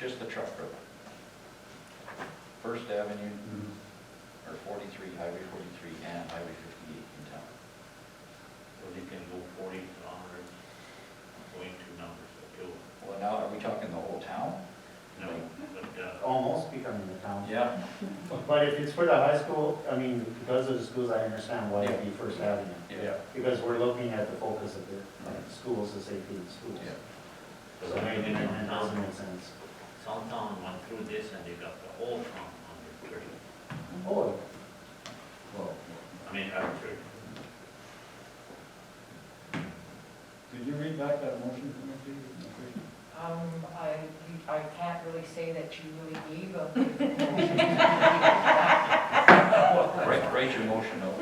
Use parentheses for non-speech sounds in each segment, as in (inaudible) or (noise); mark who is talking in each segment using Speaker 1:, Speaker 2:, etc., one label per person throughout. Speaker 1: just the truck route. First Avenue, or 43, Highway 43 and Highway 58 in town.
Speaker 2: Well, you can go forty kilometers, going to numbers, appeal.
Speaker 1: Well, now, are we talking the whole town?
Speaker 2: No, but, uh,
Speaker 3: almost becoming the town.
Speaker 1: Yeah.
Speaker 3: But if it's for the high school, I mean, because of the schools, I understand why it'd be First Avenue.
Speaker 1: Yeah.
Speaker 3: Because we're looking at the focus of the of schools, the safety in schools.
Speaker 2: the
Speaker 3: So
Speaker 2: way
Speaker 3: maybe
Speaker 2: they went
Speaker 3: that doesn't
Speaker 2: down,
Speaker 3: make sense.
Speaker 2: some town went through this and they got the whole town on their church.
Speaker 3: Oh,
Speaker 1: Well,
Speaker 2: I mean, our church.
Speaker 4: Did you read back that motion from the previous?
Speaker 5: Um, I, I can't really say that you really gave a I,
Speaker 1: (laughs) Write, write your motion out.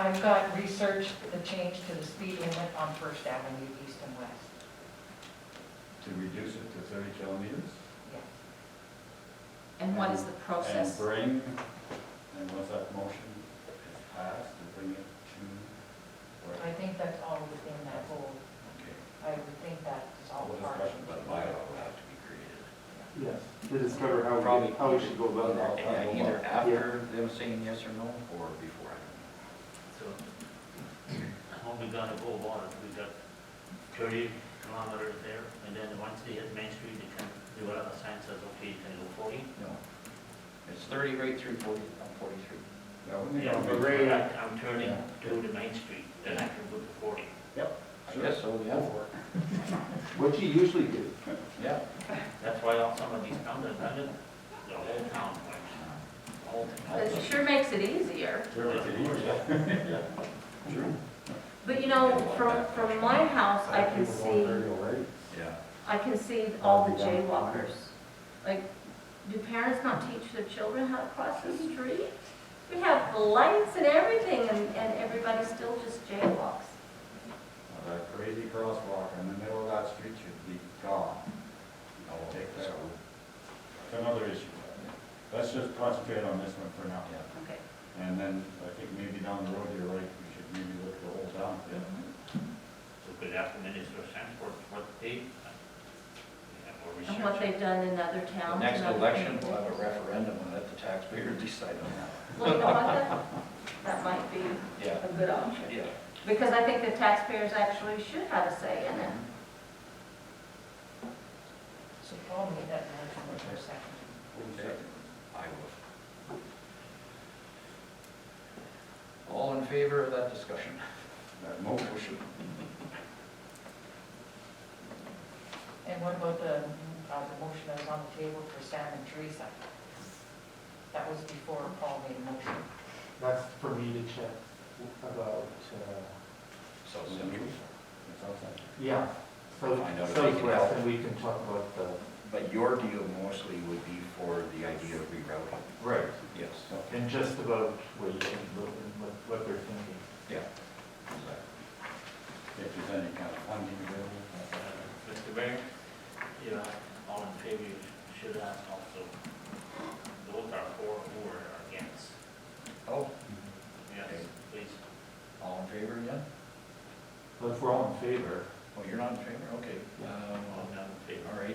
Speaker 5: I've got researched the change to the speed limit on First Avenue East and West,
Speaker 4: To reduce it to thirty kilometers?
Speaker 5: yes.
Speaker 6: And what is the process?
Speaker 4: And bring, and once that motion is passed, to bring it to,
Speaker 5: I think that's all within that whole,
Speaker 1: Okay.
Speaker 5: I would think that is all
Speaker 4: Well,
Speaker 5: part of
Speaker 4: discussion,
Speaker 1: But
Speaker 5: it.
Speaker 1: a bylaw will have to be created.
Speaker 7: Yes, to discover how
Speaker 1: Probably-
Speaker 7: we, how we should go about that.
Speaker 1: Yeah, Either after them saying yes or no, or before.
Speaker 2: So, how we gotta go about it, we got thirty kilometers there, and then once they hit Main Street, they can, do whatever the sign says, okay, you can go forty.
Speaker 1: No. It's 30 right through 40, uh, 43.
Speaker 4: yeah, wouldn't it
Speaker 2: Yeah,
Speaker 4: all be-
Speaker 3: great.
Speaker 2: I- I'm turning to the Main Street, then I can go to forty.
Speaker 1: I guess so,
Speaker 7: (laughs)
Speaker 1: yeah.
Speaker 7: What you usually do.
Speaker 1: Yeah.
Speaker 2: That's why all some of these towns have done it, the whole town, like, all the
Speaker 6: It sure makes it easier.
Speaker 4: Sure, it's easier.
Speaker 6: But you know, from, from my house, I can
Speaker 3: people going
Speaker 6: see,
Speaker 3: thirty already.
Speaker 1: Yeah.
Speaker 6: I can see all the jaywalkers. Like, do parents not teach their children how to cross the street? We have lights and everything, and, and everybody still just jaywalks.
Speaker 4: Well, That crazy crosswalk in the middle of that street should be gone. I'll take that one. It's another issue. Let's just concentrate on this one for now.
Speaker 1: Yeah.
Speaker 6: Okay.
Speaker 4: And then I think maybe down the road, you're right, we should maybe look at the whole town.
Speaker 2: So could ask the Minister of Transport what they, uh, or
Speaker 6: And what
Speaker 2: research.
Speaker 6: they've done in other
Speaker 1: The
Speaker 6: towns.
Speaker 1: next
Speaker 6: and other
Speaker 1: election, we'll have a
Speaker 6: communities.
Speaker 1: referendum and let the taxpayer (laughs) decide on that.
Speaker 6: Well, you know what, that, that might be
Speaker 1: Yeah.
Speaker 6: a good option.
Speaker 1: Yeah.
Speaker 6: Because I think the taxpayers actually should have a say in it.
Speaker 5: So follow me that motion for a second.
Speaker 1: Okay. I will. All in favor of that discussion?
Speaker 4: That motion
Speaker 1: Motion.
Speaker 5: And what about the, uh, the motion that was on the table for Sam and Teresa? That was before Paul made a motion.
Speaker 7: That's for me to check about, uh,
Speaker 1: South Central.
Speaker 4: is outside.
Speaker 7: yeah, so,
Speaker 1: Find out if they can help.
Speaker 7: southwest, and we can talk about the,
Speaker 1: But your deal mostly would be for the idea of rerouting. Oh.
Speaker 7: right,
Speaker 1: Yes.
Speaker 7: and just about what you think, what, what what they're thinking.
Speaker 1: Yeah.
Speaker 4: If there's any kind of funding available.
Speaker 2: Uh, Mr. Mayor, you know, all in favor, you should ask also, those are for who are against.
Speaker 1: Oh,
Speaker 2: Yes, please.
Speaker 1: all in favor again?
Speaker 7: But if we're all in favor,
Speaker 1: Oh, you're not in favor? Okay. Um,
Speaker 2: All not in favor.
Speaker 1: All right.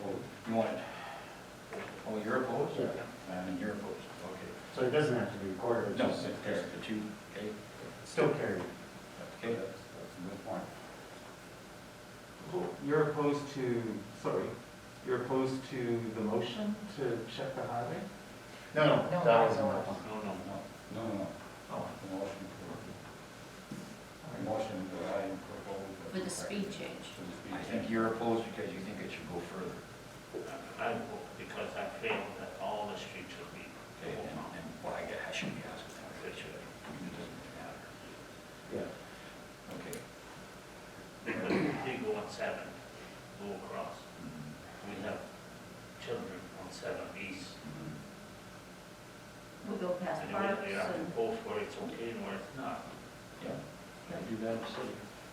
Speaker 4: Opposed.
Speaker 1: You want it? Oh, you're opposed?
Speaker 3: Yeah.
Speaker 1: And you're opposed, okay.
Speaker 3: So it doesn't have to be recorded, it's
Speaker 1: No,
Speaker 3: just
Speaker 1: it's just the two, okay?
Speaker 3: still carried.
Speaker 4: Okay, that's, that's a good point.
Speaker 7: you're opposed to, sorry, you're opposed to the motion to check the highway?
Speaker 3: No, no,
Speaker 5: No,
Speaker 3: that was
Speaker 5: no.
Speaker 3: not one.
Speaker 2: No, no,
Speaker 4: No, no, no,
Speaker 7: Oh,
Speaker 4: the motion for, the motion that I proposed.
Speaker 6: For the speed change.
Speaker 4: For the speed
Speaker 1: I think
Speaker 4: change.
Speaker 1: you're opposed because you think it should go further.
Speaker 2: I vote because I feel that all the streets should be.
Speaker 1: Okay, and, and, well, I guess I shouldn't be asking that, it should, it doesn't matter.
Speaker 3: Yeah.
Speaker 1: Okay.
Speaker 2: Because if they go on seven, go across, we have children on seven east.
Speaker 1: Mm-hmm.
Speaker 6: We go past
Speaker 2: And
Speaker 6: parks
Speaker 2: if they have to
Speaker 6: and,
Speaker 2: go for it, it's okay, and where it's not,
Speaker 1: Yeah, I do that, so,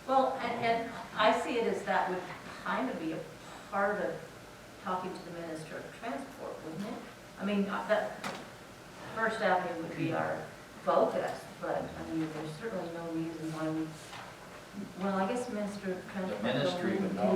Speaker 6: well, and, and I see it as that would kind of be a part of talking to the Minister of Transport, wouldn't it? I mean, uh, that, First Avenue would
Speaker 1: Mm-hmm.
Speaker 6: be our focus, but, I mean, there's certainly no reason why we, well, I guess Minister of Transport.
Speaker 1: ministry would
Speaker 6: wouldn't
Speaker 1: know.
Speaker 6: do